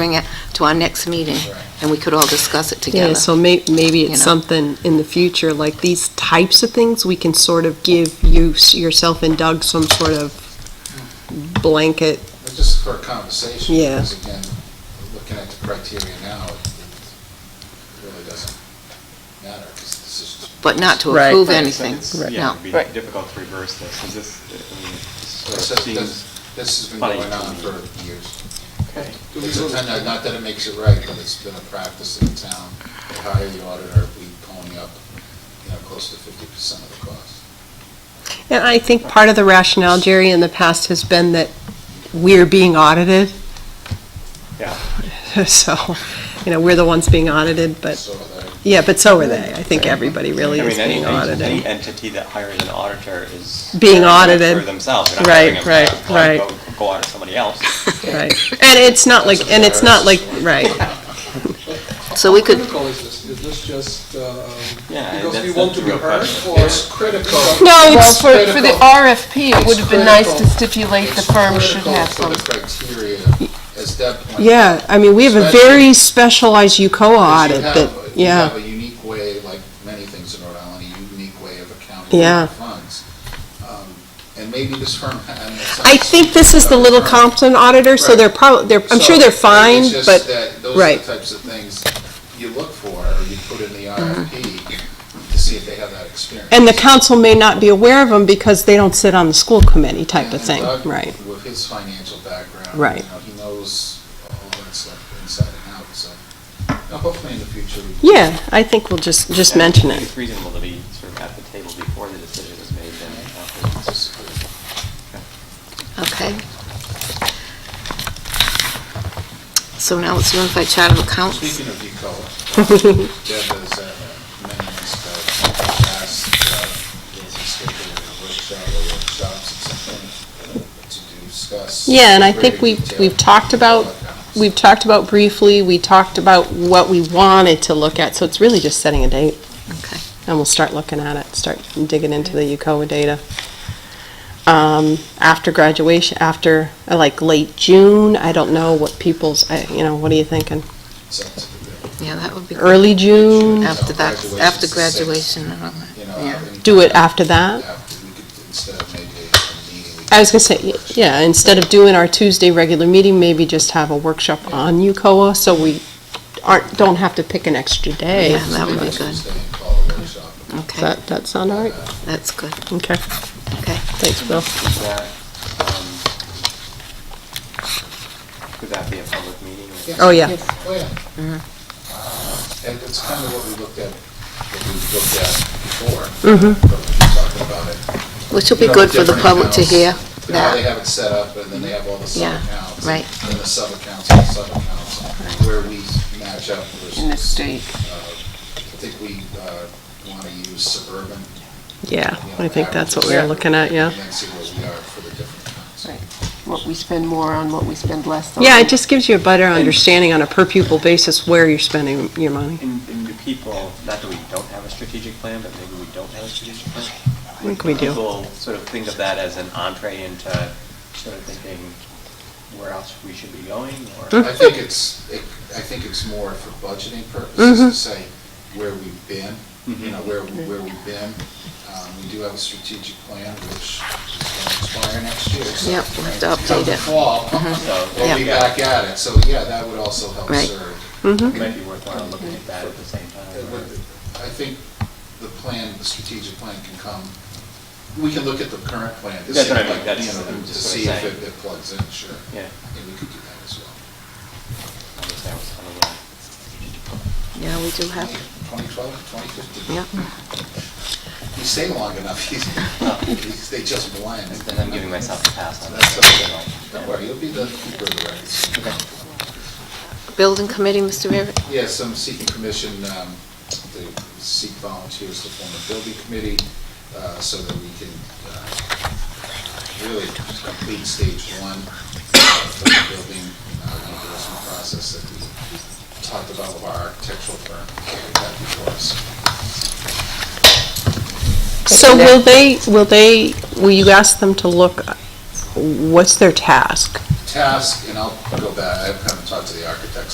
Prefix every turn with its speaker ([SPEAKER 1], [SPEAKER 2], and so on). [SPEAKER 1] bring it to our next meeting, and we could all discuss it
[SPEAKER 2] Yeah,
[SPEAKER 1] together.
[SPEAKER 2] so may, maybe
[SPEAKER 1] you
[SPEAKER 2] it's
[SPEAKER 1] know.
[SPEAKER 2] something in the future, like these types of things, we can sort of give you, s- yourself and Doug some sort of blanket,
[SPEAKER 3] But just for a conversation,
[SPEAKER 2] Yeah.
[SPEAKER 3] because again, looking at the criteria now, it it really doesn't matter, because this is.
[SPEAKER 1] But not to
[SPEAKER 2] Right.
[SPEAKER 1] approve
[SPEAKER 3] Right, so
[SPEAKER 1] anything,
[SPEAKER 3] it's-
[SPEAKER 4] Yeah,
[SPEAKER 1] no.
[SPEAKER 4] it'd be
[SPEAKER 5] Right.
[SPEAKER 4] difficult to reverse this, 'cause this, I mean, this
[SPEAKER 3] So it
[SPEAKER 4] sort of
[SPEAKER 3] says
[SPEAKER 4] seems,
[SPEAKER 3] this- This has been
[SPEAKER 4] funny
[SPEAKER 3] going
[SPEAKER 4] to
[SPEAKER 3] on
[SPEAKER 4] me.
[SPEAKER 3] for years.
[SPEAKER 4] okay.
[SPEAKER 3] It's a ten- Not that it makes it right, but it's been a practice in the town. We hire the auditor, we pony up, you know, close to fifty percent of the cost.
[SPEAKER 2] And I think part of the rationale, Jerry, in the past has been that we're being audited.
[SPEAKER 4] Yeah.
[SPEAKER 2] So, you know, we're the ones being audited, but,
[SPEAKER 3] So uh, that-
[SPEAKER 2] yeah, but so are they. I think everybody
[SPEAKER 4] I
[SPEAKER 2] really
[SPEAKER 4] mean,
[SPEAKER 2] is
[SPEAKER 4] any-
[SPEAKER 2] being
[SPEAKER 4] any- Any
[SPEAKER 2] audited.
[SPEAKER 4] entity that hires an auditor is.
[SPEAKER 2] Being
[SPEAKER 4] hiring them
[SPEAKER 2] audited.
[SPEAKER 4] For themselves, they're not
[SPEAKER 2] Right,
[SPEAKER 4] hiring them
[SPEAKER 2] right,
[SPEAKER 4] to, like,
[SPEAKER 2] right.
[SPEAKER 4] go- Go audit somebody else.
[SPEAKER 2] Right. And it's not like, and it's not like, right.
[SPEAKER 1] So we could-
[SPEAKER 6] How critical is this? Is this just, um,
[SPEAKER 4] Yeah,
[SPEAKER 6] because
[SPEAKER 4] that's-
[SPEAKER 6] we want
[SPEAKER 4] that's
[SPEAKER 6] to
[SPEAKER 4] the
[SPEAKER 6] be
[SPEAKER 4] real
[SPEAKER 6] heard?
[SPEAKER 4] question.
[SPEAKER 6] Or
[SPEAKER 3] It's critical.
[SPEAKER 2] No,
[SPEAKER 5] Well,
[SPEAKER 2] it's,
[SPEAKER 5] for, for the RFP, it
[SPEAKER 3] It's
[SPEAKER 5] would have been nice to
[SPEAKER 3] critical-
[SPEAKER 5] stipulate the
[SPEAKER 3] it's
[SPEAKER 5] firm should
[SPEAKER 3] critical
[SPEAKER 5] have
[SPEAKER 3] for
[SPEAKER 5] some.
[SPEAKER 3] the criteria, as Deb pointed out.
[SPEAKER 2] yeah, I mean, we have a very specialized UCOA
[SPEAKER 3] Because
[SPEAKER 2] audit
[SPEAKER 3] you
[SPEAKER 2] that,
[SPEAKER 3] have- You
[SPEAKER 2] yeah.
[SPEAKER 3] have a unique way, like many things in Rhode Island, a unique way of accounting
[SPEAKER 2] Yeah.
[SPEAKER 3] for funds. Um, And maybe this firm. and it
[SPEAKER 2] I
[SPEAKER 3] sounds-
[SPEAKER 2] think this is the
[SPEAKER 3] sounds
[SPEAKER 2] Little
[SPEAKER 3] firm.
[SPEAKER 2] Compton auditor, so they're
[SPEAKER 3] Right.
[SPEAKER 2] probably, they're, I'm sure
[SPEAKER 3] So,
[SPEAKER 2] they're fine,
[SPEAKER 3] It's just
[SPEAKER 2] but,
[SPEAKER 3] that those are
[SPEAKER 2] right.
[SPEAKER 3] the types of things you look for, or you put in the RFP to see if they have that experience.
[SPEAKER 2] Mm-hmm. and the council may not be aware of them because they don't sit on the school committee type of
[SPEAKER 3] And
[SPEAKER 2] thing,
[SPEAKER 3] Doug,
[SPEAKER 2] right?
[SPEAKER 3] With his financial background.
[SPEAKER 2] Right.
[SPEAKER 3] you know, He knows all that stuff inside and out, so you know, hopefully in the future. we can-
[SPEAKER 2] Yeah, I think we'll just, just
[SPEAKER 4] And I
[SPEAKER 2] mention
[SPEAKER 4] think
[SPEAKER 2] it.
[SPEAKER 4] It's reasonable to be sort of at the table before the decision is made then.
[SPEAKER 3] It's
[SPEAKER 4] after.
[SPEAKER 3] just-
[SPEAKER 1] Okay. So now it's notified chart of accounts.
[SPEAKER 3] Speaking of UCOA, um, Deb has uh, many months ago asked, uh, there's a schedule of a workshop or workshops, it's something to discuss.
[SPEAKER 2] Yeah, and I
[SPEAKER 3] greater
[SPEAKER 2] think we've,
[SPEAKER 3] detail
[SPEAKER 2] we've talked about,
[SPEAKER 3] about
[SPEAKER 2] we've talked about briefly, we talked about what we wanted to look at, so it's really just setting a date.
[SPEAKER 1] Okay.
[SPEAKER 2] And we'll start looking at it, start digging into the UCOA data. Um, after graduation, after, uh, like, late June, I don't know what people's, I- you know, what are you thinking?
[SPEAKER 3] Sounds good.
[SPEAKER 1] Yeah, that would be. good.
[SPEAKER 2] Early June,
[SPEAKER 1] After that,
[SPEAKER 3] Graduation's
[SPEAKER 1] after
[SPEAKER 3] the
[SPEAKER 1] graduation and all that,
[SPEAKER 3] You know,
[SPEAKER 5] um,
[SPEAKER 1] yeah.
[SPEAKER 3] I think
[SPEAKER 2] do it after that?
[SPEAKER 3] after we could, instead of maybe a meeting. we
[SPEAKER 2] I was
[SPEAKER 3] could
[SPEAKER 2] gonna say,
[SPEAKER 3] do a
[SPEAKER 2] y-
[SPEAKER 3] workshop.
[SPEAKER 2] yeah, instead of doing our Tuesday regular meeting, maybe just have a workshop on UCOA, so we aren't, don't have to pick an extra day.
[SPEAKER 1] Yeah, that would be
[SPEAKER 3] Maybe
[SPEAKER 1] good.
[SPEAKER 3] Tuesday and call a workshop.
[SPEAKER 2] Does
[SPEAKER 1] Okay,
[SPEAKER 2] that, that sound all right?
[SPEAKER 1] that's good,
[SPEAKER 2] Okay,
[SPEAKER 1] okay.
[SPEAKER 2] thanks, Bill.
[SPEAKER 4] Is that, um, could that be a public meeting?
[SPEAKER 3] Yes.
[SPEAKER 2] Oh,
[SPEAKER 4] or-
[SPEAKER 2] yeah, Uh-huh.
[SPEAKER 3] Oh, yeah. And it's kind of what we looked at, what we looked at before.
[SPEAKER 2] Mm-hmm.
[SPEAKER 3] But we talked about it.
[SPEAKER 1] Which will be good for the public to hear
[SPEAKER 3] You know, how they
[SPEAKER 1] that,
[SPEAKER 3] have it set up, and then they have all the
[SPEAKER 1] Yeah,
[SPEAKER 3] sub-accounts.
[SPEAKER 1] right.
[SPEAKER 3] And the sub-accounts, and the sub-accounts, where we match up versus.
[SPEAKER 5] In the state.
[SPEAKER 3] uh, I think we want to use suburban.
[SPEAKER 2] yeah,
[SPEAKER 3] you know,
[SPEAKER 2] I think that's what we
[SPEAKER 3] averages,
[SPEAKER 2] were looking at, yeah.
[SPEAKER 3] And then see where we are for the different accounts.
[SPEAKER 5] Right. What we spend more on, what we spend less on.
[SPEAKER 2] Yeah, it just gives you a better understanding on a per pupil basis where you're spending your money.
[SPEAKER 4] And, and do people, not that we don't have a strategic plan, but maybe we don't have a strategic plan? I
[SPEAKER 2] think we do.
[SPEAKER 4] People sort of think of that as an entree into sort of thinking where else we should be going, or?
[SPEAKER 3] I think it's, it- I think it's more for budgeting purposes
[SPEAKER 1] Mm-hmm.
[SPEAKER 3] to say where we've been, you know, where, where we've been. Um, We do have a strategic plan which is going to expire next year. so-
[SPEAKER 1] Yep, we'll have to
[SPEAKER 3] Come
[SPEAKER 1] update
[SPEAKER 3] the
[SPEAKER 1] it. Mm-hmm.
[SPEAKER 3] fall,
[SPEAKER 4] So,
[SPEAKER 3] we'll be
[SPEAKER 4] yeah,
[SPEAKER 3] back at it. So, yeah, that would also help
[SPEAKER 1] Right.
[SPEAKER 3] serve.
[SPEAKER 2] Mm-hmm.
[SPEAKER 4] It might be worthwhile looking at that at the same
[SPEAKER 3] It
[SPEAKER 4] time. or-
[SPEAKER 3] would- I think the plan, the strategic plan can come, we can look at the current plan to
[SPEAKER 4] That's
[SPEAKER 3] see,
[SPEAKER 4] what I mean,
[SPEAKER 3] like,
[SPEAKER 4] that's-
[SPEAKER 3] you know,
[SPEAKER 4] I'm
[SPEAKER 3] to
[SPEAKER 4] just sort
[SPEAKER 3] see
[SPEAKER 4] of
[SPEAKER 3] if
[SPEAKER 4] saying.
[SPEAKER 3] it it plugs in, sure.
[SPEAKER 4] Yeah.
[SPEAKER 3] And we could do that as well. Mm-hmm.
[SPEAKER 4] I guess that was kind of a-
[SPEAKER 1] Yeah, we do have,
[SPEAKER 3] 2012, 2015.
[SPEAKER 1] yeah.
[SPEAKER 3] You stay long enough, he's- he's- they just blend.
[SPEAKER 4] Then I'm giving myself a pass on that.
[SPEAKER 3] That's okay. Don't worry, you'll be the keeper of the records.
[SPEAKER 1] Building committee, Mr. Rivera?
[SPEAKER 3] Yes, I'm seeking permission um, to seek volunteers to form a building committee uh, so that we can uh, really complete stage one of the building uh, reimbursement process that we talked about with our architectural firm. We got before us.
[SPEAKER 2] So will they, will they, will you ask them to look, what's their task?
[SPEAKER 3] task, and I'll go back, I haven't talked to the architects